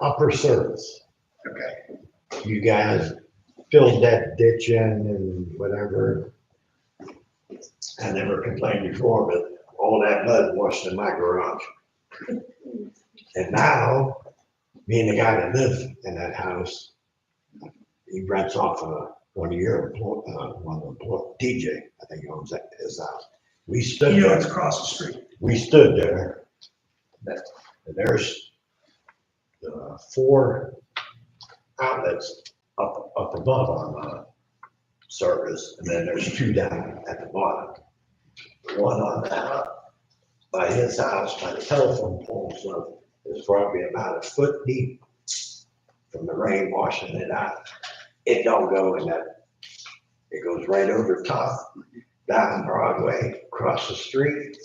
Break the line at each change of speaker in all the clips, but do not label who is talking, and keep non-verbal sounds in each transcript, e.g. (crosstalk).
upper surface.
Okay.
You guys filled that ditch in and whatever. I never complained before, but all that mud washed in my garage. And now, me and the guy that lives in that house, he rents off a, one of your, employ- uh, one of the, employ- DJ, I think he owns that, his house. We stood
You know, it's
there,
across the street.
we stood there.
That-
And there's uh, four outlets up, up above on the surface, and then there's two down at the bottom. One on the house, by his house, by the telephone pole, so it's probably about a foot deep from the rain washing it out. It don't go in that, it goes right over top, down Broadway, across the street,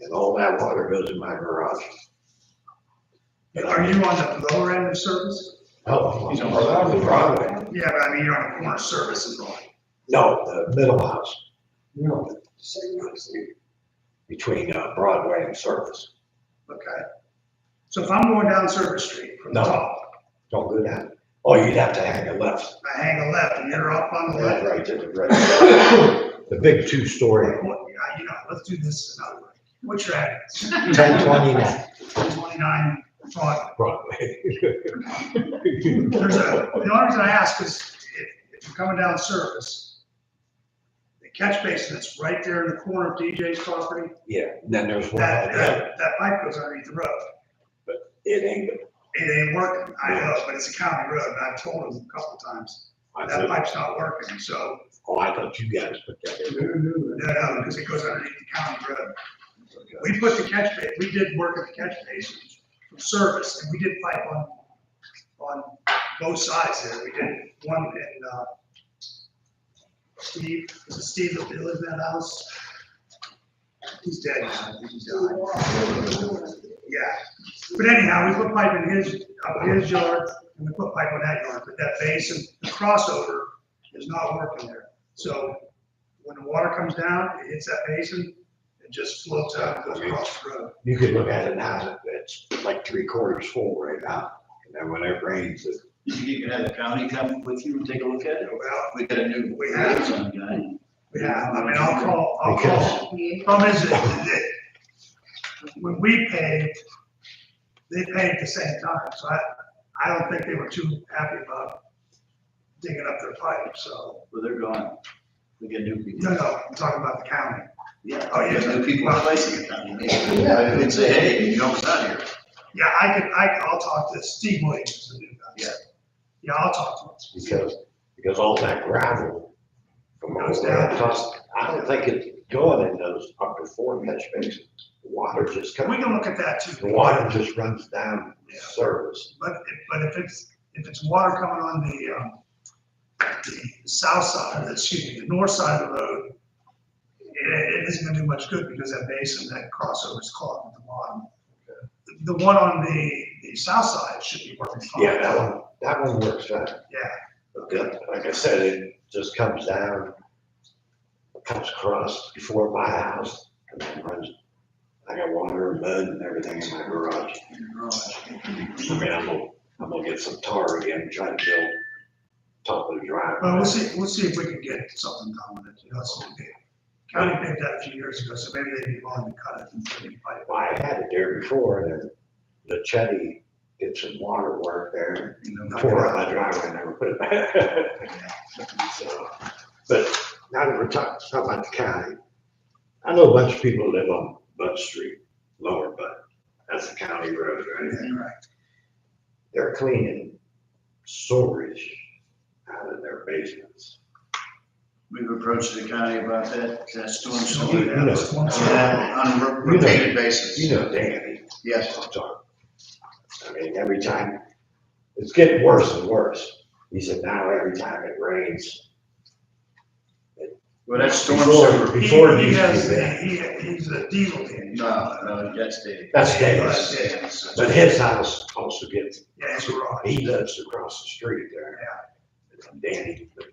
and all that water goes in my garage.
Are you on the lower end of service?
Oh,
He's on
Broadway. Broadway.
Yeah, but I mean, you're on the corner of service and all.
No, the middle house. No. Between uh, Broadway and Service.
Okay. So if I'm going down Service Street from the
No.
top,
Don't do that. Oh, you'd have to hang a left.
I hang a left and you're up on the
Right,
left.
right, to the right. The big two-story,
What, yeah, you know, let's do this another way. What's your address? (laughs)
ten twenty-nine
Twenty-nine Broadway.
Broadway.
There's a, the only reason I ask is if, if you're coming down Service, the catch basin that's right there in the corner of DJ's property,
Yeah, and then there's one,
that,
out there.
that, that pipe goes underneath the road.
it ain't,
It ain't working, I know, but it's a county road, and I've told them a couple times,
I
that
thought,
pipe's not working, so.
oh, I thought you guys put that in.
No, no, because it goes underneath the county road. We put the catch ba, we did work at the catch basin for service, and we did pipe on, on both sides there, we did one in, uh, Steve, is it Steve that lived in that house? He's dead now, he's died. Yeah, but anyhow, we put pipe in his, up his yard, and we put pipe on that yard, but that basin, the crossover is not working there. So when the water comes down, it hits that basin, it just floats out, and goes across the road.
You could look at it now, it's like three quarters full right now. And then when it rains, it
You think you can have the county come with you and take a look at it?
Well,
We got a new
We have.
liaison guy.
yeah, I mean, I'll call, I'll call.
Because
Problem is that, that when we paid, they paid at the same time, so I, I don't think they were too happy about digging up their pipe, so.
Well, they're gone. We got new people.
No, no, I'm talking about the county.
Yeah,
Oh, yeah.
we got New people replacing the county. I would say, hey, you don't sound here.
Yeah, I could, I, I'll talk to Steve Williams, the new guy.
Yeah.
Yeah, I'll talk to him.
because, because all that gravel from
Goes
over
down.
there, plus, I don't think it's going in those upper four catch basins. The Water just
We
comes,
can look at that too.
the water just runs down the surface.
But, if- but if it's, if it's water coming on the, um, the south side, excuse me, the north side of the road, it, it isn't gonna do much good because that basin, that crossover is clogged at the bottom. The one on the, the south side should be working fine.
Yeah, that one, that one works fine.
Yeah,
But that- Like I said, it just comes down, comes across before my house and then runs. I got water and mud and everything in my garage. I mean, I'm gonna, I'm gonna get some tar again, try to build top of the drive.
well, we'll see, we'll see if we can get something done with it, you know, so the county paid that a few years ago, so maybe they'd be willing to cut it and put it in pipe.
Well, I had it there before, and then the Chetty did some water work there,
you know, knock it
tore
out.
out my driveway, and never put it back. (laughs) So, But now that we're talking, talking about the county, I know a bunch of people live on Bud Street, Lower Bud, that's a county road, right?
Yeah, right.
They're cleaning storage out of their basements.
We've approached the county about that, that storm
So,
sewer.
yeah, that's one side.
Yeah, on a
You know-
repeated basis.
You know Danny.
Yes.
I'm talking. I mean, every time, it's getting worse and worse. He said now every time it rains.
Well, that storm
Before-
sewer.
Before it
He- He
used to
has,
be bad.
he, he's a diesel man.
No, no, that's Dave.
That's
That's
Davis.
Davis.
But his house also gets,
Yeah, it's right.
he lives across the street there. From Danny, but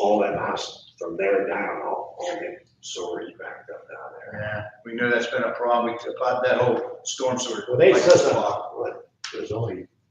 all that house from there down, all, all that storage backed up down there.
Yeah, we know that's been a problem. We, about that whole storm sewer.
Well, they
like,
said, what, there's only